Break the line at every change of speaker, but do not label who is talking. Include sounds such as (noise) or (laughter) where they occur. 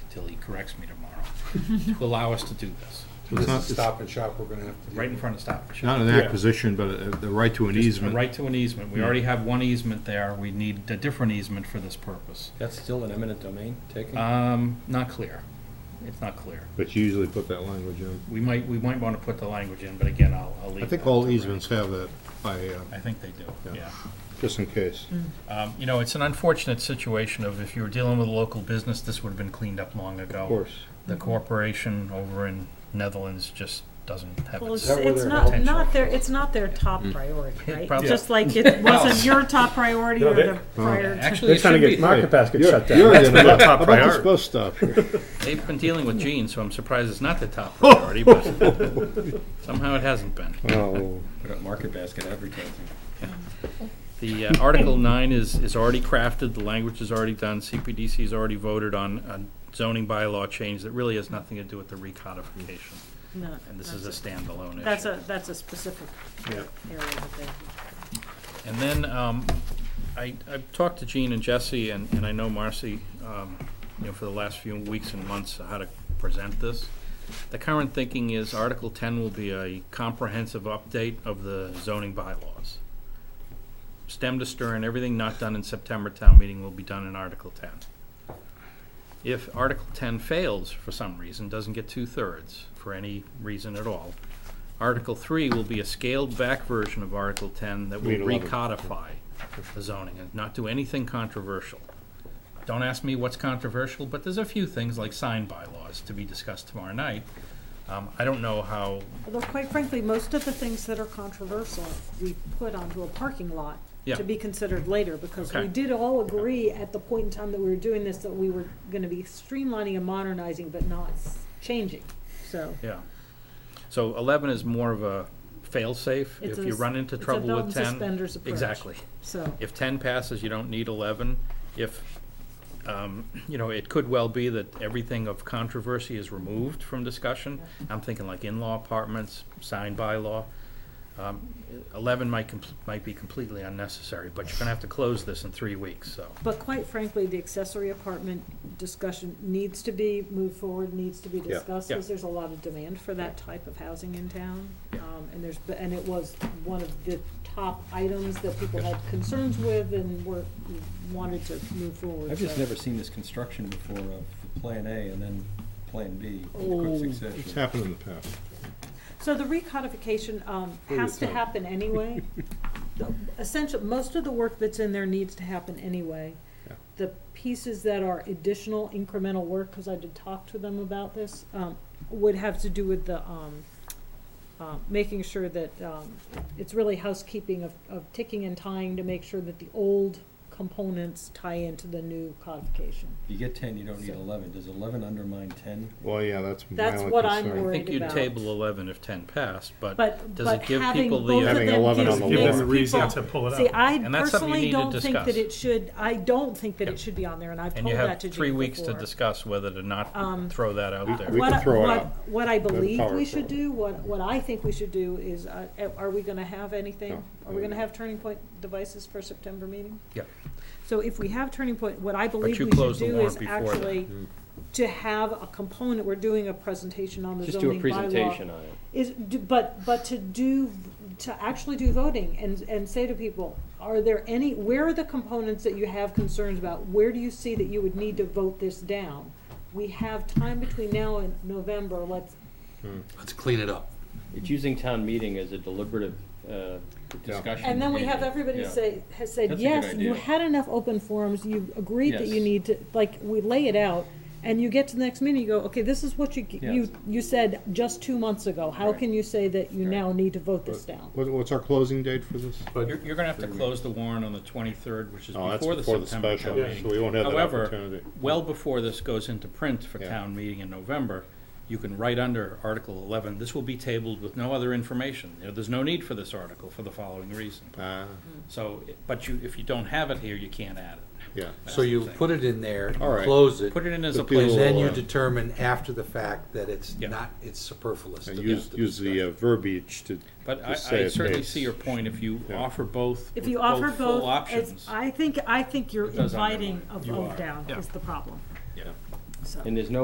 corrects me tomorrow, to allow us to do this,
It's not, it's
Stop and shop, we're gonna have to. do.
right in front of Stop and Shop.
not an
Yeah.
acquisition, but a- the right to an
A
easement.
right to an easement, we already have one easement there, we need a different easement for this purpose.
That's still an eminent domain taking?
Uh,
Um, not clear, it's not clear.
But you usually put that language in.
We might, we might want to put the language in, but again, I'll, I'll leave
I think
that to
all
Ray.
easements have that by, uh,
I think they do, yeah.
Yeah. just in case.
Um, You know, it's an unfortunate situation of if you were dealing with a local business, this would have been cleaned up long ago.
Of course.
The corporation over in Netherlands just doesn't have
Well,
it.
it's,
that where
it's
their
not,
potential
not their, it's not their top priority, right?
Hmm. probably.
Just
(laughs)
like it wasn't your top priority
No,
or
they-
the prior. to-
Actually, it should be.
Market basket shut down. How about this bus stop here?
They've been dealing with Gene, so I'm surprised it's not the top priority, but somehow it hasn't been.
(laughs) Oh,
Put up market basket advertising.
The uh, Article 9 is, is already crafted, the language is already done, CPDC has already voted on a zoning bylaw change that really has nothing to do with the recodification,
no,
and this is a
that's
standalone
a-
issue.
That's a, that's a specific
Yeah.
area that they.
And then, um, I, I've talked to Gene and Jesse, and, and I know Marcy, um, you know, for the last few weeks and months, how to present this. The current thinking is Article ten will be a comprehensive update of the zoning bylaws. Stem to stern, everything not done in September town meeting will be done in Article ten. If Article ten fails for some reason, doesn't get two-thirds for any reason at all, Article three will be a scaled-back version of Article ten that will
Mean eleven.
recodify the zoning and not do anything controversial. Don't ask me what's controversial, but there's a few things like sign bylaws to be discussed tomorrow night. Um, I don't know how,
Although quite frankly, most of the things that are controversial, we put onto a parking lot
Yeah.
to be considered later, because we
Okay.
did all agree at the point in time that we were doing this, that we were gonna be streamlining and modernizing, but not s- changing, so.
yeah. So eleven is more of a fail-safe if
It's a
you
s-
run into
it's a
trouble
belt
with ten.
and suspenders approach.
Exactly.
So,
If ten passes, you don't need eleven. If, um, you know, it could well be that everything of controversy is removed from discussion. I'm thinking like in-law apartments, signed bylaw. Um, eleven might compl- might be completely unnecessary, but you're gonna have to close this in three weeks, so.
but quite frankly, the accessory apartment discussion needs to be moved forward, needs to be discussed,
yeah.
because there's a lot of demand for that type of housing in town.
Yeah.
Um, and there's, b- and it was one of the top items that people had concerns with and were, wanted to move forward.
I've just
so.
never seen this construction before of Plan A and then Plan B in
Oh.
quick
It's
succession.
happened in the past.
So the recodification, um, has to
sorry.
happen anyway. Essentially, most of the work that's in there needs to happen anyway.
Yeah.
The pieces that are additional incremental work, cause I did talk to them about this, um, would have to do with the, um, uh, making sure that, um, it's really housekeeping of, of ticking and tying to make sure that the old components tie into the new codification.
You get ten, you don't need eleven. Does eleven undermine ten?
Well, yeah, that's my
That's
only
what I'm
concern.
I
worried
think you'd
about.
table eleven if ten passed, but
But,
does
but
it give
having
people
both
the?
of
uh,
Having
them
11
gives,
on the
makes
wall.
Give them a reason
people-
to pull it
See,
out.
I
And that's something you
personally
need to
don't think that
discuss.
it should, I don't think that
Yep.
it should be on there, and I've
And
told
you have
that to Jake
three weeks to
before.
discuss whether to not
Um,
throw that out there.
We can
What I-
throw it
what-
out.
What I
have
believe
power
we
to
should
throw it.
do, what, what I think we should do is, uh, eh, are we gonna have anything?
No.
Are we gonna have Turning Point devices for September meeting?
Yep.
So if we have Turning Point, what I believe
you
we should
closed the
do
warrant
is
before that. Mm.
actually to have a component, we're doing a presentation on the
Just do a
zoning bylaw.
presentation on it.
Is, do- but, but to do, to actually do voting and, and say to people, are there any, where are the components that you have concerns about? Where do you see that you would need to vote this down? We have time between now and November, let's,
Let's clean it up.
It's using town meeting as a deliberative uh, discussion.
and then we have everybody
Yeah.
say, has said,
That's a good
yes, you
idea.
had enough open forums, you agreed that you
Yes.
need to, like, we lay it out. And you get to the next meeting, you go, okay, this is what you, you,
Yes.
you said just two months ago. How
Right.
can you say that you
Right.
now need to vote this down?
What, what's our closing date for this?
You're, you're gonna have to close the warrant on the twenty-third, which is
Oh, that's
before the
before the
September
special,
town
yeah,
meeting.
so we won't have that
However,
opportunity.
well before this goes into print for
Yeah.
town meeting in November, you can write under Article eleven, this will be tabled with no other information. You know, There's no need for this article for the following reason.
Ah,
So, but you, if you don't have it here, you can't add it.
yeah.
So you put it in there,
All right.
close it,
Put it in as a
But people-
and
placeholder.
then you
Yeah.
determine after the fact that it's
Yeah.
not, it's superfluous.
And
to
use,
the
use the uh,
discussion.
verbiage to,
But I,
Just say
I
it
certainly
makes-
see your point, if you
Yeah.
offer both,
If
with
you offer
full
both, it's,
options.
I think, I think you're
does
inviting a
undermine. You
vote
are,
down
yeah.
is the problem,
Yeah.
so.
And there's no